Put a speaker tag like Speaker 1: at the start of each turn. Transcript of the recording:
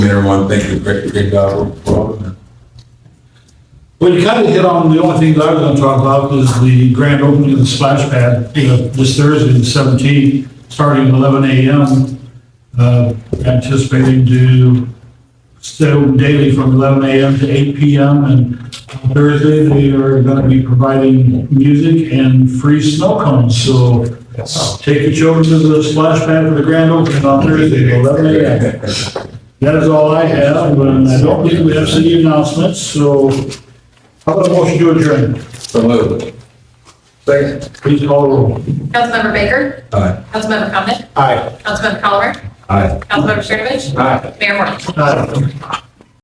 Speaker 1: everyone think did a great, great job for them.
Speaker 2: Well, you kind of hit on the only thing that I was going to talk about is the grand opening of the splash pad uh, this Thursday, the 17th, starting at 11 a.m. Uh, Anticipating to stow daily from 11 a.m. to 8 p.m. And on Thursday, they are going to be providing music and free snow cones. So uh, take your children to the splash pad for the grand opening on Thursday, at 11 a.m. That is all I have, and I don't believe we have city announcements, so how about a motion to adjourn?
Speaker 1: So moved. Second.
Speaker 2: Please call the roll.
Speaker 3: Councilmember Baker?
Speaker 1: Aye.
Speaker 3: Councilmember Comnet?
Speaker 2: Aye.
Speaker 3: Councilmember Colomer?
Speaker 1: Aye.
Speaker 3: Councilmember Cernovich?
Speaker 1: Aye.
Speaker 3: Mayor Moore?
Speaker 2: Aye.